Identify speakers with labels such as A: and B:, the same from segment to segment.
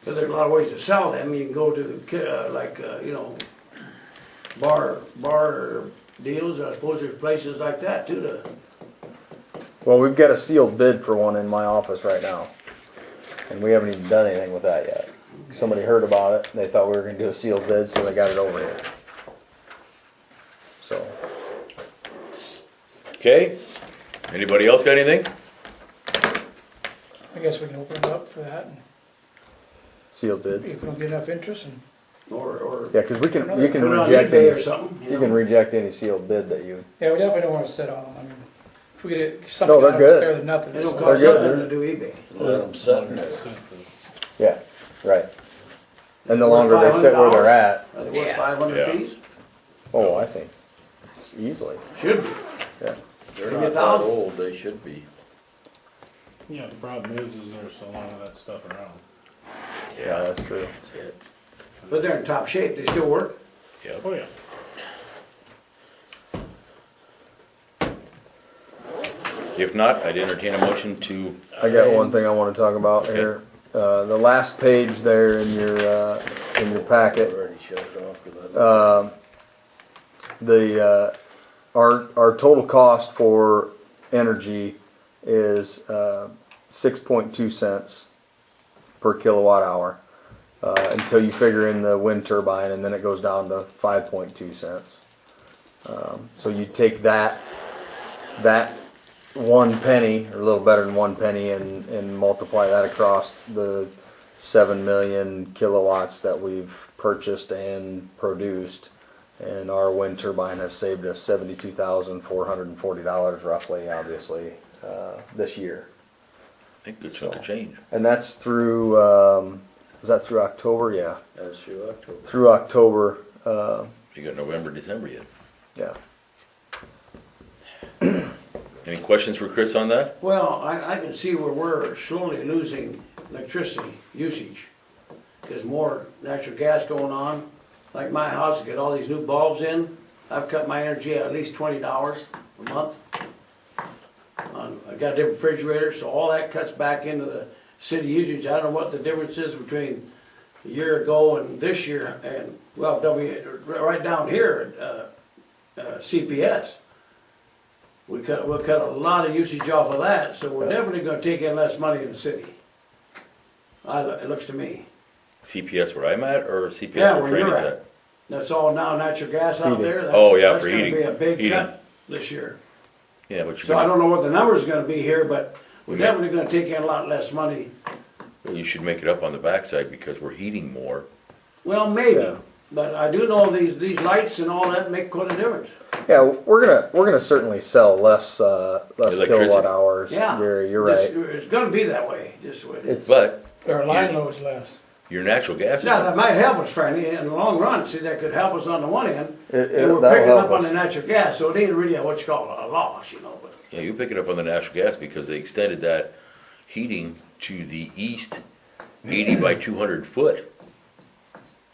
A: Because there's a lot of ways to sell them. You can go to, uh, like, uh, you know, bar, bar deals. I suppose there's places like that too to,
B: Well, we've got a sealed bid for one in my office right now. And we haven't even done anything with that yet. Somebody heard about it, and they thought we were gonna do a sealed bid, so they got it over here. So,
C: Okay, anybody else got anything?
D: I guess we can open it up for that, and
B: sealed bids.
D: if we don't get enough interest, and
A: or, or
B: Yeah, cause we can, you
A: put
B: can
A: it on
B: reject
A: eBay or
B: any,
A: something.
B: you
A: know?
B: can reject any sealed bid that you,
D: yeah, we definitely don't wanna sit on them, I mean, if we get something
B: No, they're
D: out of it, it's
B: good.
D: better than nothing.
A: It don't
D: so.
A: cost
B: good,
A: nothing
B: they're-
A: to do eBay.
E: Let them sit in it.
B: yeah, right. And the
A: Worth
B: longer they sit where
A: $500?
B: they're at,
A: Are they worth five hundred
C: Yeah.
A: piece?
B: oh, I think, easily,
A: Should be.
B: yeah.
E: They're
A: Maybe
E: not
A: it's
E: that
A: out.
E: old, they should be.
F: Yeah, the problem is, is there's a lot of that stuff around.
B: Yeah, that's true.
A: But they're in top shape. They still work.
F: Oh, yeah.
C: If not, I'd entertain a motion to,
B: I got one thing I wanna talk about here. Uh, the last page there in your, uh, in your packet.
E: Already shut it off, 'cause I don't-
B: Um, the, uh, our, our total cost for energy is, uh, six point two cents per kilowatt hour. Uh, until you figure in the wind turbine and then it goes down to five point two cents. Um, so you take that, that one penny, or a little better than one penny and, and multiply that across the seven million kilowatts that we've purchased and produced. And our wind turbine has saved us seventy-two thousand four hundred and forty dollars roughly, obviously, uh, this year.
C: I think it's going to change.
B: And that's through, um, was that through October? Yeah,
E: That's through October.
B: through October, uh,
C: You got November, December yet.
B: yeah.
C: Any questions for Chris on that?
A: Well, I, I can see where we're slowly losing electricity usage. There's more natural gas going on. Like my house, get all these new bulbs in. I've cut my energy at least twenty dollars a month. Um, I got a different refrigerator, so all that cuts back into the city usage. I don't know what the difference is between a year ago and this year and, well, W, right down here, uh, uh, CPS. We cut, we'll cut a lot of usage off of that, so we're definitely gonna take in less money in the city. I, it looks to me.
C: CPS where I'm at or CPS
A: Yeah,
C: where
A: where
C: Franny's
A: you're
C: at?
A: at. That's all now natural gas out there. That's-
C: Oh, yeah,
A: That's
C: for heating.
A: gonna be a big
C: Heating.
A: cut this year.
C: Yeah, but you're
A: So I
C: gonna-
A: don't know what the number's gonna be here, but we're
C: We may-
A: definitely gonna take in a lot less money.
C: Well, you should make it up on the backside because we're heating more.
A: Well, maybe,
B: Yeah.
A: but I do know these, these lights and all that make quite a difference.
B: Yeah, we're gonna, we're gonna certainly sell less, uh, less
C: Electricity.
B: kilowatt hours.
A: Yeah.
B: Gary, you're
A: This-
B: right.
A: It's gonna be that way, just what.
B: It's,
C: But
D: Our line load's less,
C: your natural gas is
A: Now, that might help us, Franny, in the long run, see, that could help us on the one end.
B: It- it-
A: And we're
B: that'll
A: picking up
B: help
A: on
B: us.
A: the natural gas, so it ain't really a what you call a loss, you know, but.
C: Yeah, you pick it up on the natural gas because they extended that heating to the east, eighty by two hundred foot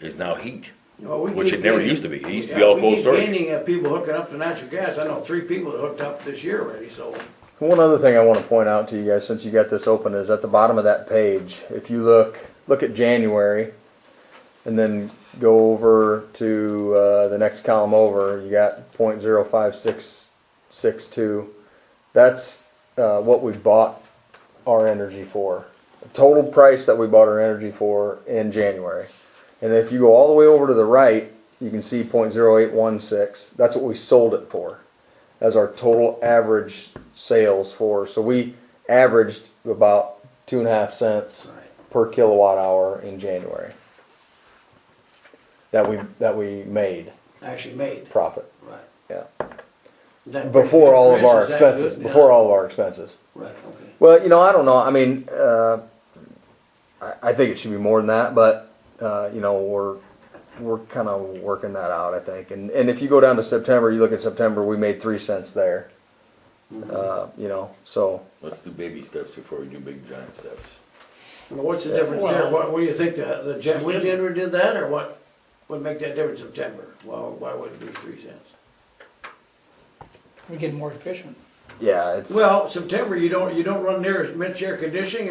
C: is now heat.
A: Well, we
C: Which
A: keep
C: it never
A: gaining-
C: used to be. It used to be
A: Yeah,
C: all
A: we
C: cold
A: keep
C: storage.
A: Gaining of people hooking up to natural gas. I know three people that hooked up this year already, so.
B: One other thing I want to point out to you guys, since you got this open, is at the bottom of that page, if you look, look at January, and then go over to uh, the next column over, you got point zero five six six two. That's uh, what we bought our energy for. The total price that we bought our energy for in January. And if you go all the way over to the right, you can see point zero eight one six. That's what we sold it for as our total average sales for. So we averaged about two and a half cents per kilowatt hour in January. That we that we made
A: Actually made,
B: profit.
A: right.
B: Yeah.
A: That-
B: Before all of
A: Chris,
B: our
A: is that
B: expenses.
A: good?
B: Before
A: Yeah.
B: all of our expenses.
A: Right, okay.
B: Well, you know, I don't know. I mean, uh, I, I think it should be more than that, but uh, you know, we're we're kind of working that out. I think, and and if you go down to September, you look at September, we made three cents there.
A: Mm-hmm.
B: Uh, you know, so
C: Let's do baby steps before we do big giant steps.
A: Well, What's the difference there?
F: Well-
A: What, what do you think? The, the gen, wind generator did that or what? Would make that difference September? Well, why would it be three cents?
D: we get more efficient.
B: yeah, it's
A: Well, September, you don't, you don't run near as much air conditioning